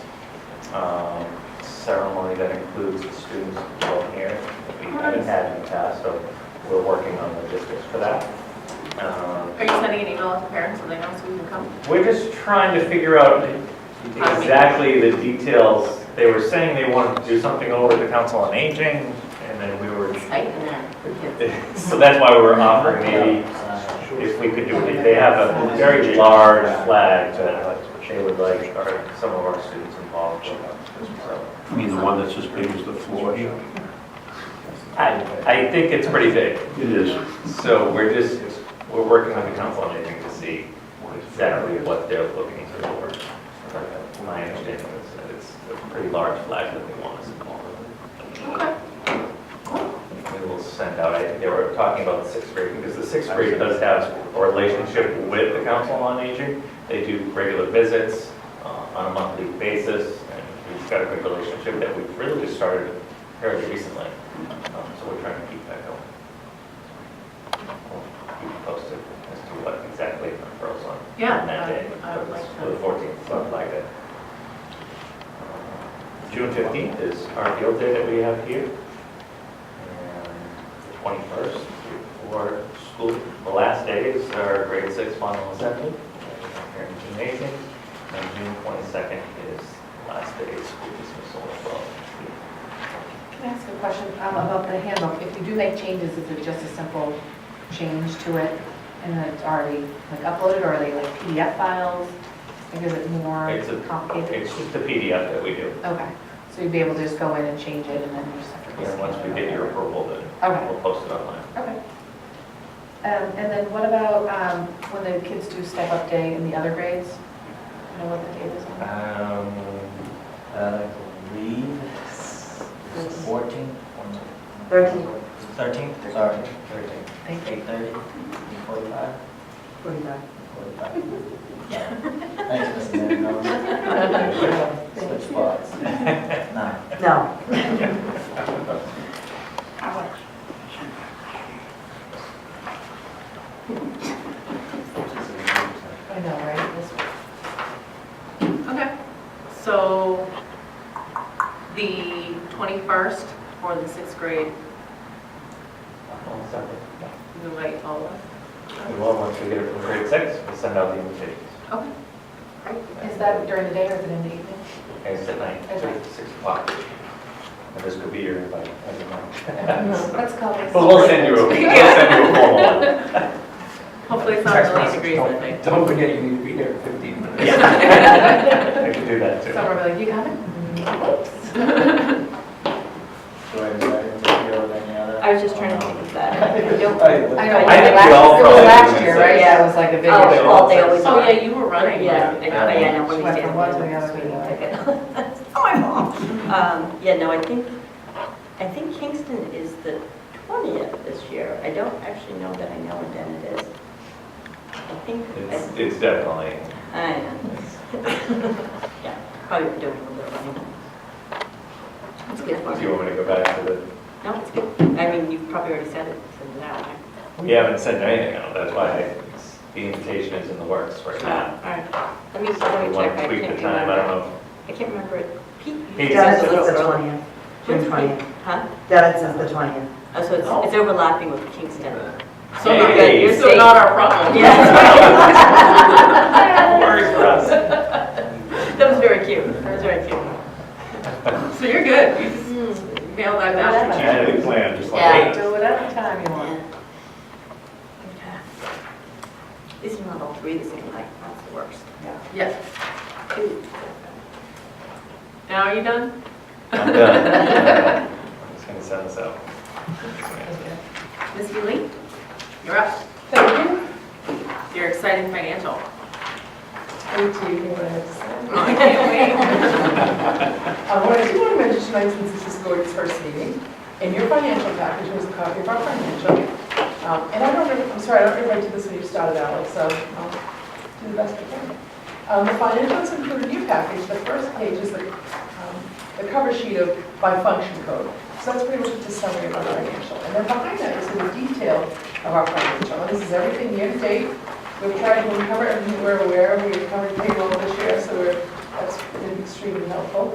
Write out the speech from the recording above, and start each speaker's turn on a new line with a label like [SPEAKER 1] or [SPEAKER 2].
[SPEAKER 1] um, ceremony that includes the students from here. We haven't had in the past, so we're working on logistics for that. Um,
[SPEAKER 2] Are you sending an email out to parents so they know so we can come?
[SPEAKER 1] We're just trying to figure out exactly the details. They were saying they wanted to do something over at the Council on Aging, and then we were,
[SPEAKER 2] Tighten that for kids.
[SPEAKER 1] so that's why we're offering maybe if we could do it. They have a very large flag that they would like our- some of our students involved with. So
[SPEAKER 3] You mean the one that's as big as the floor? It
[SPEAKER 1] I, I think it's pretty big.
[SPEAKER 3] is.
[SPEAKER 1] So we're just, we're working with the Council on Aging to see exactly what they're looking for. My understanding is that it's a pretty large flag that they want us involved
[SPEAKER 2] Okay.
[SPEAKER 1] in. We will send out, I think they were talking about the sixth grade, because the sixth grade does have a relationship with the Council on Aging. They do regular visits uh, on a monthly basis, and we've got a good relationship that we've really just started fairly recently. Um, So we're trying to keep that going. We'll keep you posted as to what exactly occurs on
[SPEAKER 2] Yeah,
[SPEAKER 1] on that
[SPEAKER 2] I-
[SPEAKER 1] day.
[SPEAKER 2] I would like
[SPEAKER 1] For the 14th, something like that. June 15th is our field day that we have here. And the 21st, for school, the last day is our grade six final assembly. Here in gymnasium. And June 22nd is last day of school dismissal as well.
[SPEAKER 4] Can I ask a question um, about the handbook? If you do make changes, is it just a simple change to it? And then it's already like uploaded, or are they like PDF files? Like, is it more
[SPEAKER 1] It's a-
[SPEAKER 4] complicated?
[SPEAKER 1] It's just the PDF that we do.
[SPEAKER 4] Okay, so you'd be able to just go in and change it, and then you just have to...
[SPEAKER 1] And once we get your approval, then
[SPEAKER 4] Okay.
[SPEAKER 1] we'll post it online.
[SPEAKER 4] Okay. Um, And then what about um, when the kids do step-up day in the other grades? You know what the date is on that?
[SPEAKER 1] Um,
[SPEAKER 5] uh, I believe it's 14?
[SPEAKER 2] 13.
[SPEAKER 5] 13, sorry, 13.
[SPEAKER 4] Thank you.
[SPEAKER 5] 8:30, 8:45? 45. 45. Thanks, Mrs. Marinelli. Switch spots. Nine.
[SPEAKER 6] No.
[SPEAKER 4] I know, right? This one.
[SPEAKER 2] Okay. So the 21st for the sixth grade, you invite all of us?
[SPEAKER 1] Well, once we get it from grade six, we'll send out the invitations.
[SPEAKER 2] Okay.
[SPEAKER 4] Is that during the day or is it in the evening?
[SPEAKER 1] And it's at night,
[SPEAKER 4] At night.
[SPEAKER 1] six o'clock. And this could be your invite, I don't know.
[SPEAKER 4] Let's call this...
[SPEAKER 1] But we'll send you, a- we'll send you a formal one.
[SPEAKER 2] Hopefully it's not really degrees that night.
[SPEAKER 5] Don't forget, you need to be there in 15 minutes.
[SPEAKER 1] I could do that too.
[SPEAKER 4] Summer, like, you coming?
[SPEAKER 5] Do I have any other- any other? Um,
[SPEAKER 7] I was just trying to think of that.
[SPEAKER 4] I
[SPEAKER 5] that.
[SPEAKER 4] know,
[SPEAKER 1] I think
[SPEAKER 4] it was
[SPEAKER 1] we all probably
[SPEAKER 4] last- it was last
[SPEAKER 1] did
[SPEAKER 4] year,
[SPEAKER 1] the
[SPEAKER 4] right?
[SPEAKER 1] same.
[SPEAKER 4] Yeah, it was like a big
[SPEAKER 7] Oh,
[SPEAKER 4] issue.
[SPEAKER 7] well, they always
[SPEAKER 2] Oh,
[SPEAKER 7] are.
[SPEAKER 2] yeah, you were running.
[SPEAKER 7] Yeah, I know, yeah, I know,
[SPEAKER 4] She
[SPEAKER 7] when we
[SPEAKER 4] went
[SPEAKER 7] did.
[SPEAKER 4] from one to the other to the other.
[SPEAKER 7] It's my fault. Um, yeah, no, I think, I think Kingston is the twentieth this year. I don't actually know that I know what then it is. I think,
[SPEAKER 1] It's, it's definitely,
[SPEAKER 7] I know. Yeah, probably doing a little running. It's good
[SPEAKER 1] do
[SPEAKER 7] for
[SPEAKER 1] you
[SPEAKER 7] you.
[SPEAKER 1] want me to go back to the,
[SPEAKER 7] No, it's good. I mean, you've probably already said it, said it out.
[SPEAKER 1] we haven't sent anything out, that's why it's- the invitation is in the works right
[SPEAKER 7] Uh,
[SPEAKER 1] now.
[SPEAKER 7] All right, let me,
[SPEAKER 1] If
[SPEAKER 7] Ah. let
[SPEAKER 1] you
[SPEAKER 7] me
[SPEAKER 1] want
[SPEAKER 7] check.
[SPEAKER 1] to
[SPEAKER 7] I
[SPEAKER 1] tweak the
[SPEAKER 7] can't
[SPEAKER 1] time, I don't
[SPEAKER 7] remember.
[SPEAKER 1] know.
[SPEAKER 7] I can't remember it. Pete? you
[SPEAKER 1] Pete
[SPEAKER 7] said
[SPEAKER 6] Dennis
[SPEAKER 7] it's a
[SPEAKER 6] is
[SPEAKER 7] little
[SPEAKER 6] the
[SPEAKER 7] early.
[SPEAKER 6] 20th, June 20th.
[SPEAKER 7] Huh?
[SPEAKER 6] Dennis is the 20th.
[SPEAKER 7] Oh, Uh. so it's- it's overlapping with Kingston.
[SPEAKER 2] So not,
[SPEAKER 1] Hey.
[SPEAKER 2] you're so not our problem.
[SPEAKER 7] Yeah.
[SPEAKER 4] Oh.
[SPEAKER 1] Worries for us.
[SPEAKER 7] That was very cute. That was very cute.
[SPEAKER 2] So you're good. You just
[SPEAKER 7] Hmm.
[SPEAKER 2] nailed that down.
[SPEAKER 3] Strategic plan, just like.
[SPEAKER 7] Yeah.
[SPEAKER 4] Do whatever time you want.
[SPEAKER 7] These are not all three the same night. That's the worst.
[SPEAKER 2] Yes. Now are you done?
[SPEAKER 1] I'm done. I'm just gonna send this out.
[SPEAKER 2] Ms. Healy, you're up.
[SPEAKER 4] Thank you.
[SPEAKER 2] Your exciting financial. Oh,
[SPEAKER 4] Wait till you hear what I have to say.
[SPEAKER 2] I can't wait.
[SPEAKER 4] Uh, What I do want to mention tonight, since this is Gordon's first meeting, in your financial package was a copy of our financial. Um, And I don't, know- I'm sorry, I don't remember if I did this when you started, Alex, so I'll do the best I can. Um, The financials included in your package, the first page is the um, the cover sheet of by function code. So that's pretty much just a summary of our financial. And then behind that is the detail of our financial. And this is everything year to date. We've tried to cover everything we're aware of. We've covered payroll this year, so we're, that's been extremely helpful.